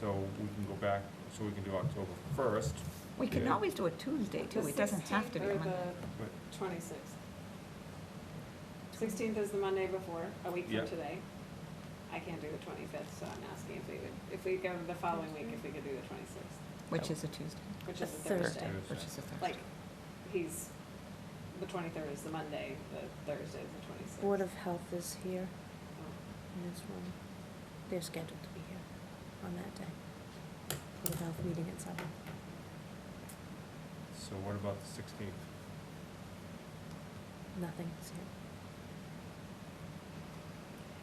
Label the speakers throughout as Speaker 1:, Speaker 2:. Speaker 1: so we can go back, so we can do October first,
Speaker 2: We can
Speaker 1: Yeah.
Speaker 2: always do it Tuesday, too. It doesn't have to be
Speaker 3: The
Speaker 2: Monday.
Speaker 3: 16th
Speaker 1: but,
Speaker 3: or the twenty-sixth. Sixteenth is the Monday before, a week
Speaker 1: Yeah.
Speaker 3: from today. I can't do the twenty-fifth, so I'm asking if we would, if we go the following week, if we could do the twenty-sixth,
Speaker 2: Which is a Tuesday.
Speaker 3: which is a
Speaker 4: The
Speaker 3: Thursday.
Speaker 2: Which is a Thursday.
Speaker 3: Like, he's, the twenty-third is the Monday, the Thursday is the twenty-sixth. Oh.
Speaker 4: Board of Health is here in this room. They're scheduled to be here on that day. Board of Health meeting at seven.
Speaker 1: so what about the sixteenth?
Speaker 4: Nothing is here.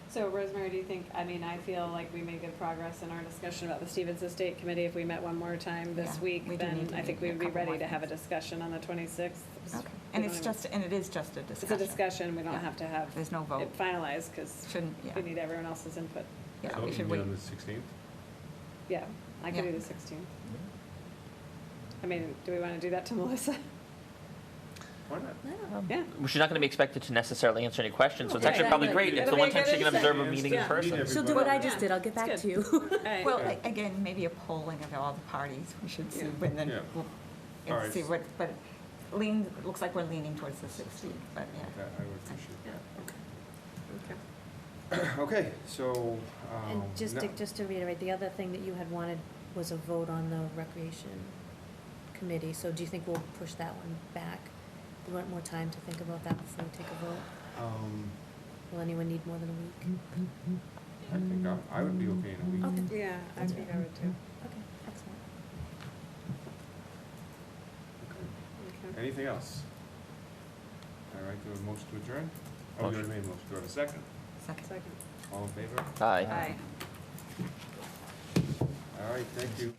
Speaker 3: So Rosemary, do you think, I mean, I feel like we made good progress in our discussion about the Stevens Estate Committee. If we met one more time this
Speaker 2: Yeah, we
Speaker 3: week,
Speaker 2: do need
Speaker 3: then
Speaker 2: to
Speaker 3: I
Speaker 2: meet
Speaker 3: think we
Speaker 2: a
Speaker 3: would be
Speaker 2: couple
Speaker 3: ready
Speaker 2: more
Speaker 3: to have a
Speaker 2: times.
Speaker 3: discussion on the twenty-sixth.
Speaker 2: Okay. And it's just, and it is just a
Speaker 3: It's a
Speaker 2: discussion.
Speaker 3: discussion, we don't
Speaker 2: Yeah.
Speaker 3: have to have
Speaker 2: There's no vote.
Speaker 3: it finalized, because
Speaker 2: Shouldn't,
Speaker 3: we
Speaker 2: yeah,
Speaker 3: need everyone else's input.
Speaker 2: yeah, we should wait.
Speaker 1: on the sixteenth?
Speaker 3: Yeah, I can
Speaker 2: Yeah.
Speaker 3: do the sixteenth. I mean, do we want to do that to Melissa?
Speaker 1: Why not?
Speaker 4: No,
Speaker 3: Yeah.
Speaker 5: Well, She's not going to be expected to necessarily answer any questions, so it's
Speaker 3: Okay.
Speaker 5: actually probably
Speaker 3: Exactly.
Speaker 5: great. It's the
Speaker 3: It'll
Speaker 5: one
Speaker 3: be a
Speaker 5: time she
Speaker 3: good
Speaker 5: can observe a
Speaker 1: insight.
Speaker 5: meeting in
Speaker 3: Yeah.
Speaker 5: person.
Speaker 4: She'll do what I
Speaker 3: Everybody.
Speaker 4: just did, I'll get back
Speaker 3: It's
Speaker 4: to you.
Speaker 3: All right.
Speaker 2: Well,
Speaker 1: Yeah.
Speaker 2: a- again, maybe a polling of all the parties, we should see,
Speaker 3: Yeah.
Speaker 2: and then,
Speaker 1: Yeah.
Speaker 2: we'll-
Speaker 1: All
Speaker 2: and
Speaker 1: right.
Speaker 2: see what, but lean, it looks like we're leaning towards the 16th, but yeah.
Speaker 1: That, I would appreciate
Speaker 3: Yeah. Okay.
Speaker 1: that. Okay, so, um,
Speaker 4: And just
Speaker 1: no-
Speaker 4: to, just to reiterate, the other thing that you had wanted was a vote on the recreation committee, so do you think we'll push that one back? We want more time to think about that before we take a vote?
Speaker 1: Um,
Speaker 4: Will anyone need more than a week?
Speaker 1: I think I, I would be okay in a week.
Speaker 4: Okay,
Speaker 3: Yeah, I think I would too.
Speaker 4: okay, excellent.
Speaker 1: Okay.
Speaker 3: Okay.
Speaker 1: Anything else? All right, do a motion to adjourn? Oh, you already
Speaker 5: Motion.
Speaker 1: made a motion, do I have a second?
Speaker 2: Second.
Speaker 3: Second.
Speaker 1: All in favor?
Speaker 5: Aye.
Speaker 3: Aye.
Speaker 1: All right, thank you.